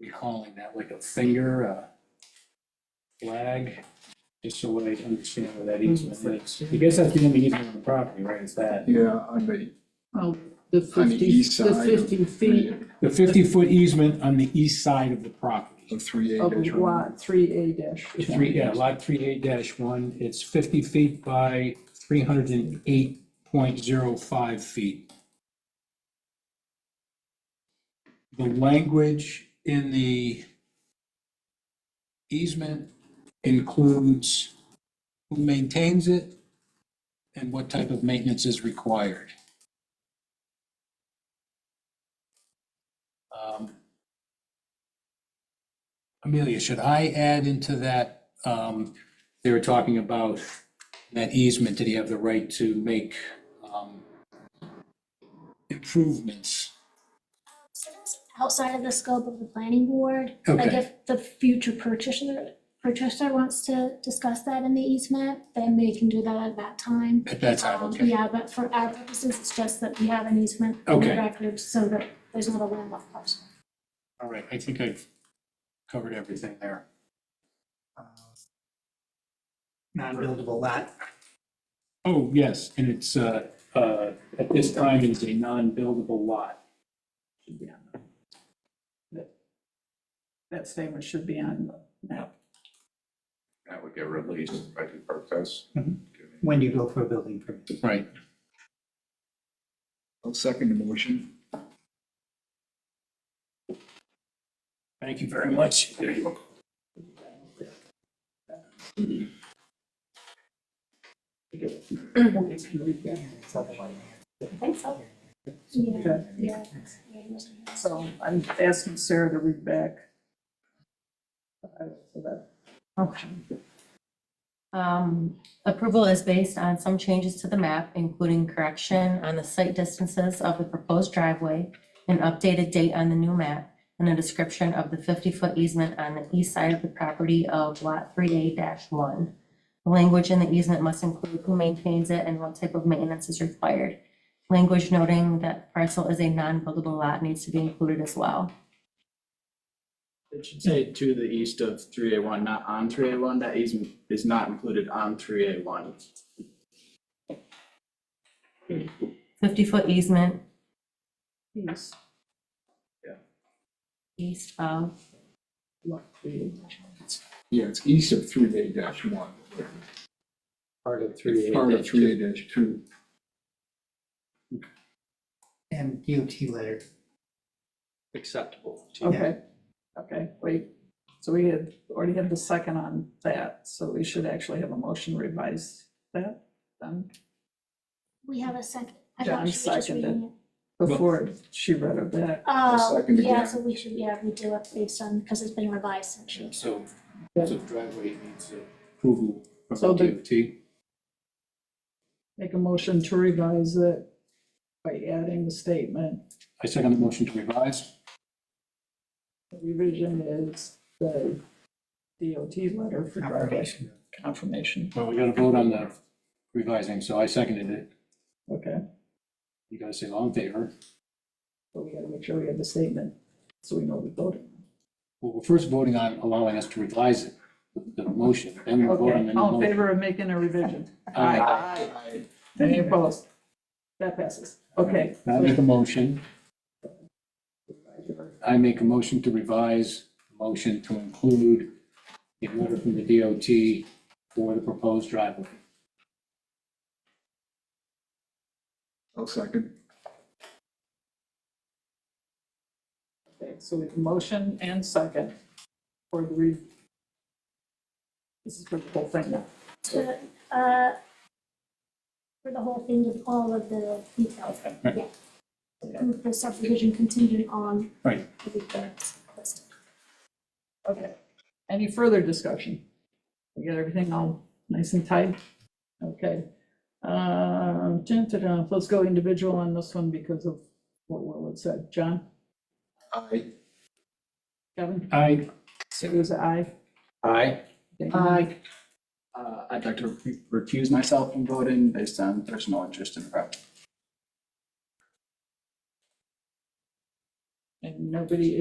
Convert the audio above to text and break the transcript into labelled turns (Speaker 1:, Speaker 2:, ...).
Speaker 1: be calling that like a finger, a flag, just so I understand where that easement is. I guess that's the only easement on the property, right, is that?
Speaker 2: Yeah, on the,
Speaker 3: Well, Um, the
Speaker 2: on the
Speaker 3: fifty,
Speaker 2: east side
Speaker 3: the
Speaker 2: of.
Speaker 3: fifty feet
Speaker 1: The fifty-foot easement on the east side of the property.
Speaker 2: Of three eight.
Speaker 3: of
Speaker 2: inch room.
Speaker 3: lot three A dash one.
Speaker 1: Three, yeah, lot three eight dash one, it's fifty feet by three hundred and eight point zero five feet. The language in the easement includes who maintains it and what type of maintenance is required. Um, Amelia, should I add into that, um, they were talking about that easement, did he have the right to make, um, improvements?
Speaker 4: outside of the scope of the planning board. Like
Speaker 1: Okay,
Speaker 4: if the future purchaser, purchaser wants to discuss that in the easement, then they can do that at that time.
Speaker 1: at that time,
Speaker 4: Um,
Speaker 1: okay.
Speaker 4: Yeah, but for our purposes, it's just that we have an easement in the
Speaker 1: Okay.
Speaker 4: record so that there's not a landlocked parcel.
Speaker 1: All right, I think I've covered everything there.
Speaker 5: uh, non-buildable lot.
Speaker 1: Oh, yes, and it's, uh, uh, at this time, it's a non-buildable lot.
Speaker 3: That statement should be on the map.
Speaker 6: That would get released by due process.
Speaker 5: When you go for a building permit,
Speaker 1: Right.
Speaker 2: I'll second the motion.
Speaker 1: Thank you very much.
Speaker 4: I think so. Yeah,
Speaker 3: Okay.
Speaker 4: yeah.
Speaker 3: So I'm asking Sarah to read back. Uh, so that-
Speaker 7: Okay. Um, Approval is based on some changes to the map, including correction on the site distances of the proposed driveway, an updated date on the new map, and a description of the 50-foot easement on the east side of the property of Lot 3A-1. The Language in the easement must include who maintains it and what type of maintenance is required. Language noting that parcel is a non-buildable lot needs to be included as well.
Speaker 8: It should say to the east of three A one, not on three A one, that easement is not included on three A one.
Speaker 7: 50-foot easement
Speaker 3: Please,
Speaker 7: east of
Speaker 3: look, please.
Speaker 2: Yeah, it's east of three eight dash one.
Speaker 8: Part of three A.
Speaker 2: Part of three eight dash two.
Speaker 5: and DOT letter.
Speaker 8: Acceptable.
Speaker 3: Okay, okay, wait. So we had, already had the second on that, so we should actually have a motion to revise that then
Speaker 4: We have a second. I
Speaker 3: John
Speaker 4: thought she was just
Speaker 3: seconded.
Speaker 4: reading it.
Speaker 3: before she read it back.
Speaker 4: Oh,
Speaker 2: seconded, yeah.
Speaker 4: yeah, so we should, yeah, redo it based on, because it's been revised since she.
Speaker 1: So, so driveway needs approval
Speaker 3: So
Speaker 1: from
Speaker 3: the-
Speaker 1: DOT.
Speaker 3: Make a motion to revise it by adding the statement.
Speaker 1: I second the motion to revise.
Speaker 3: The Revision is the DOT letter for driveway confirmation.
Speaker 1: Well, we gotta vote on the revising, so I seconded it.
Speaker 3: Okay,
Speaker 1: You guys say all in favor?
Speaker 3: but we gotta make sure we have the statement, so we know we voted.
Speaker 1: Well, we're first voting on allowing us to revise it, the the motion, then we'll vote on the
Speaker 3: Okay,
Speaker 1: new
Speaker 3: all in
Speaker 1: motion.
Speaker 3: favor of making a revision?
Speaker 1: Aye.
Speaker 3: Aye. Any opposed? That passes. Okay.
Speaker 1: Now I make a motion. I make a motion to revise, the motion to include the letter from the DOT for the proposed driveway.
Speaker 2: I'll second.
Speaker 3: Okay, so we have motion and second for the re. This is for the whole thing now.
Speaker 4: to, uh, for the whole thing with all of the details, yeah. Approve the subdivision contingent on.
Speaker 1: Right.
Speaker 4: the requirements listed.
Speaker 3: Okay. Any further discussion? We got everything all nice and tight? Okay. Uh, dun, dun, dun, let's go individual on this one because of what Will had said. John,
Speaker 2: Aye.
Speaker 3: Kevin,
Speaker 1: Aye.
Speaker 3: Sue's aye.
Speaker 8: Aye.
Speaker 3: Dan?
Speaker 8: Uh, I'd like to recuse myself from voting based on there's no interest in the project.
Speaker 3: And nobody